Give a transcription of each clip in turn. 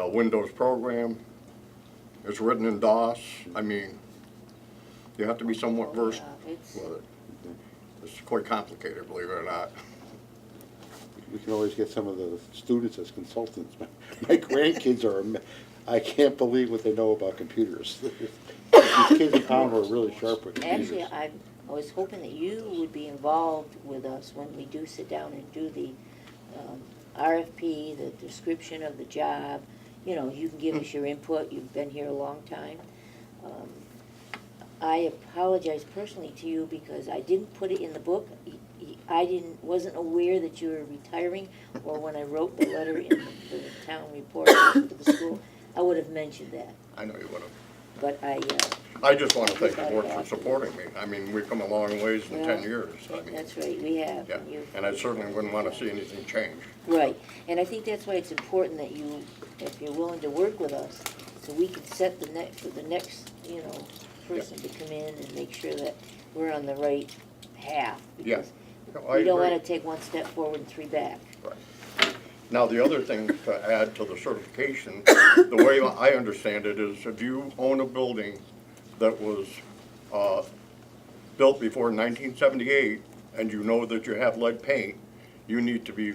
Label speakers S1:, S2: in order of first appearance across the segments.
S1: uh, Windows program. It's written in DOS. I mean, you have to be somewhat versed
S2: Yeah, Uh, it's-
S1: with it. It's quite complicated, believe it or not.
S3: We can always get some of the students as consultants. My grandkids are, ama- I can't believe what they know about computers. These kids in town are really sharp with
S2: Actually,
S3: computers.
S2: I, I was hoping that you would be involved with us when we do sit down and do the um, RFP, the description of the job. You know, you can give us your input, you've been here a long time. Um, I apologize personally to you because I didn't put it in the book. Y- y- I didn't, wasn't aware that you were retiring, or when I wrote the letter in the the town report to the school, I would have mentioned that,
S1: I know you would have.
S2: but I, uh,
S1: I just want to thank the board for supporting me. I mean, we've come a long ways in ten
S2: Well,
S1: years. I mean,
S2: That's right, we have.
S1: yeah,
S2: you-
S1: and I certainly wouldn't want to see anything change.
S2: Right, and I think that's why it's important that you, if you're willing to work with us, so we can set the next, for the next, you know, person to come in and make sure that we're on the right path.
S1: Yeah.
S2: because
S1: No, I
S2: We don't
S1: agree.
S2: wanna take one step forward and three back.
S1: Right. Now, the other thing to add to the certification, the way I understand it is if you own a building that was uh, built before 1978 and you know that you have lead paint, you need to be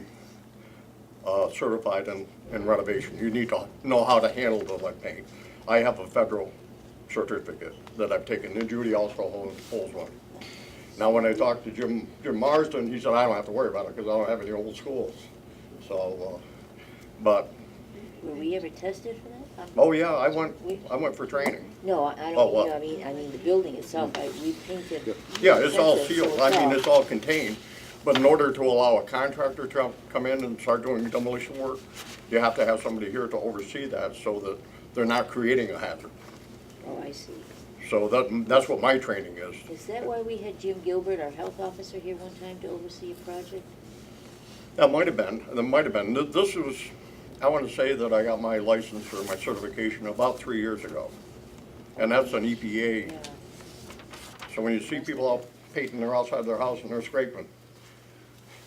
S1: uh, certified in in renovation. You need to know how to handle the lead paint. I have a federal certificate that I've taken, and Judy also holds- holds one. Now, when I talked to Jim, Jim Marsden, he said, I don't have to worry about it because I don't have any old schools. So, uh, but,
S2: Were we ever tested for that? Um,
S1: oh yeah, I went, I went for training.
S2: No, I I
S1: Oh,
S2: don't,
S1: what?
S2: mean- I mean, I mean, the building itself, I, we painted.
S1: Yeah, it's all
S2: expensive, so
S1: sealed, I mean, it's all contained, but in order to allow a contractor to come in and start doing demolition work, you have to have somebody here to oversee that so that they're not creating a hazard.
S2: Oh, I see.
S1: So that, that's what my training is.
S2: Is that why we had Jim Gilbert, our health officer, here one time to oversee a project?
S1: That might have been, that might have been. Th- This was, I want to say that I got my license or my certification about three years ago. And that's an E EPA.
S2: Yeah.
S1: So when you see people out painting, they're outside their house and they're scraping.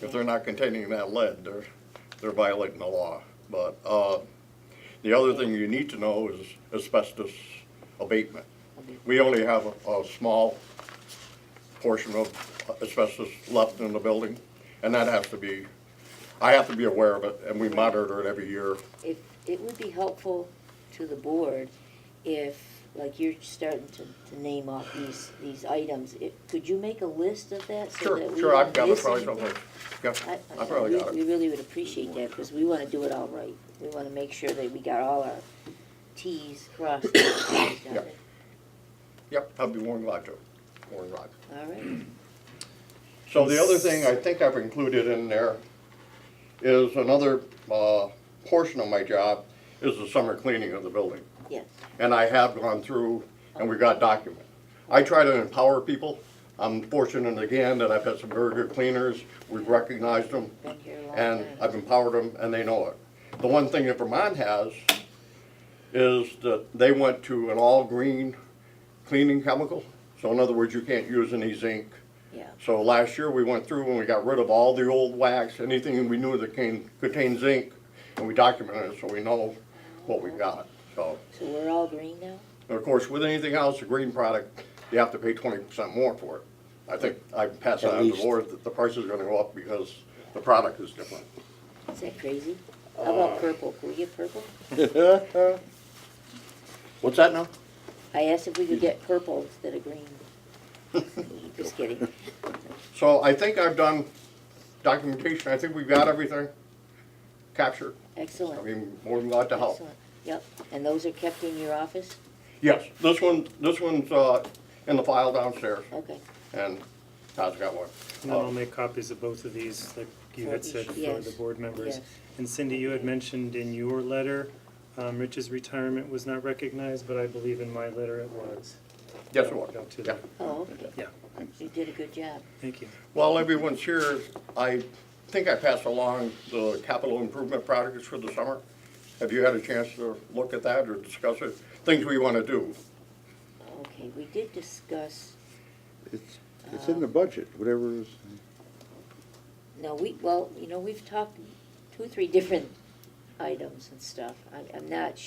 S1: If they're not containing that lead, they're, they're violating the law. But, uh, the other thing you need to know is asbestos abatement. We only have a, a small portion of asbestos left in the building, and that has to be, I have to be aware of it, and we monitor it every year.
S2: if, it would be helpful to the board if, like you're starting to, to name off these, these items, if, could you make a list of that so that
S1: Sure,
S2: we
S1: sure, I've
S2: don't
S1: got it
S2: miss
S1: probably
S2: anything?
S1: somewhere. Yeah,
S2: I-
S1: I probably
S2: we-
S1: got
S2: We
S1: it.
S2: really would appreciate that, because we wanna do it all right. We wanna make sure that we got all our Ts crossed and Ts dotted.
S1: Yep, I'll be more than glad to, more than glad.
S2: All right,
S1: So the other thing I think I've included in there is another, uh, portion of my job is the summer cleaning of the building.
S2: yes,
S1: and I have gone through, and we got document. I try to empower people. I'm fortunate again that I've had some very good cleaners, we've recognized them,
S2: Been here a long
S1: and
S2: time.
S1: I've empowered them, and they know it. The one thing that Vermont has is that they went to an all-green cleaning chemical. So in other words, you can't use any zinc.
S2: yeah,
S1: So last year, we went through and we got rid of all the old wax, anything we knew that can- contained zinc, and we documented it so we know what we got, so.
S2: so we're all green now?
S1: And of course, with anything else, a green product, you have to pay twenty percent more for it. I think I passed
S3: At
S1: on to the
S3: least.
S1: board that the price is gonna go up because the product is different.
S2: Is that crazy? How
S1: Uh,
S2: about purple? Can we get purple?
S1: What's that now?
S2: I asked if we could get purple instead of green. Just kidding.
S1: So I think I've done documentation, I think we've got everything captured. I
S2: Excellent.
S1: mean, more than glad to help.
S2: Excellent. Yep, and those are kept in your office?
S1: Yes, this one, this one's, uh, in the file downstairs,
S2: Okay.
S1: and Todd's got one. Oh,
S4: And then I'll make copies of both of these, like you had said,
S2: For each-
S4: for the
S2: yes,
S4: board members.
S2: yes.
S4: And Cindy, you had mentioned in your letter, um, Rich's retirement was not recognized, but I believe in my letter it was.
S1: Yes, it was.
S4: Go to
S1: Yeah.
S4: the,
S2: Oh, okay.
S4: yeah,
S2: You did a good job.
S4: thank you.
S1: While everyone's here, I think I passed along the capital improvement projects for the summer. Have you had a chance to look at that or discuss it? Things we want to do.
S2: Okay, we did discuss,
S3: It's, it's in the budget, whatever is,
S2: no, we, well, you know, we've talked two, three different items and stuff. I- I'm not